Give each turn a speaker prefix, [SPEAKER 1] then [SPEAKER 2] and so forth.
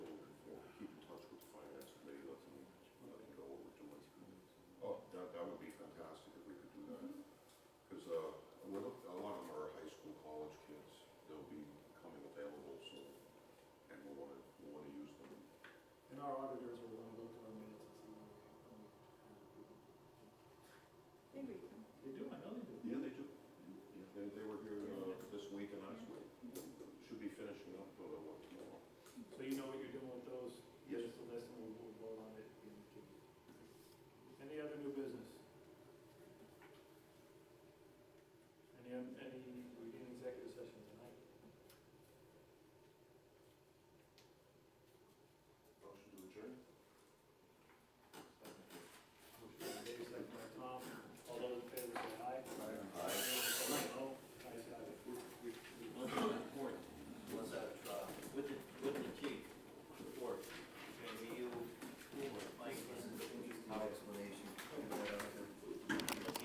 [SPEAKER 1] auditors or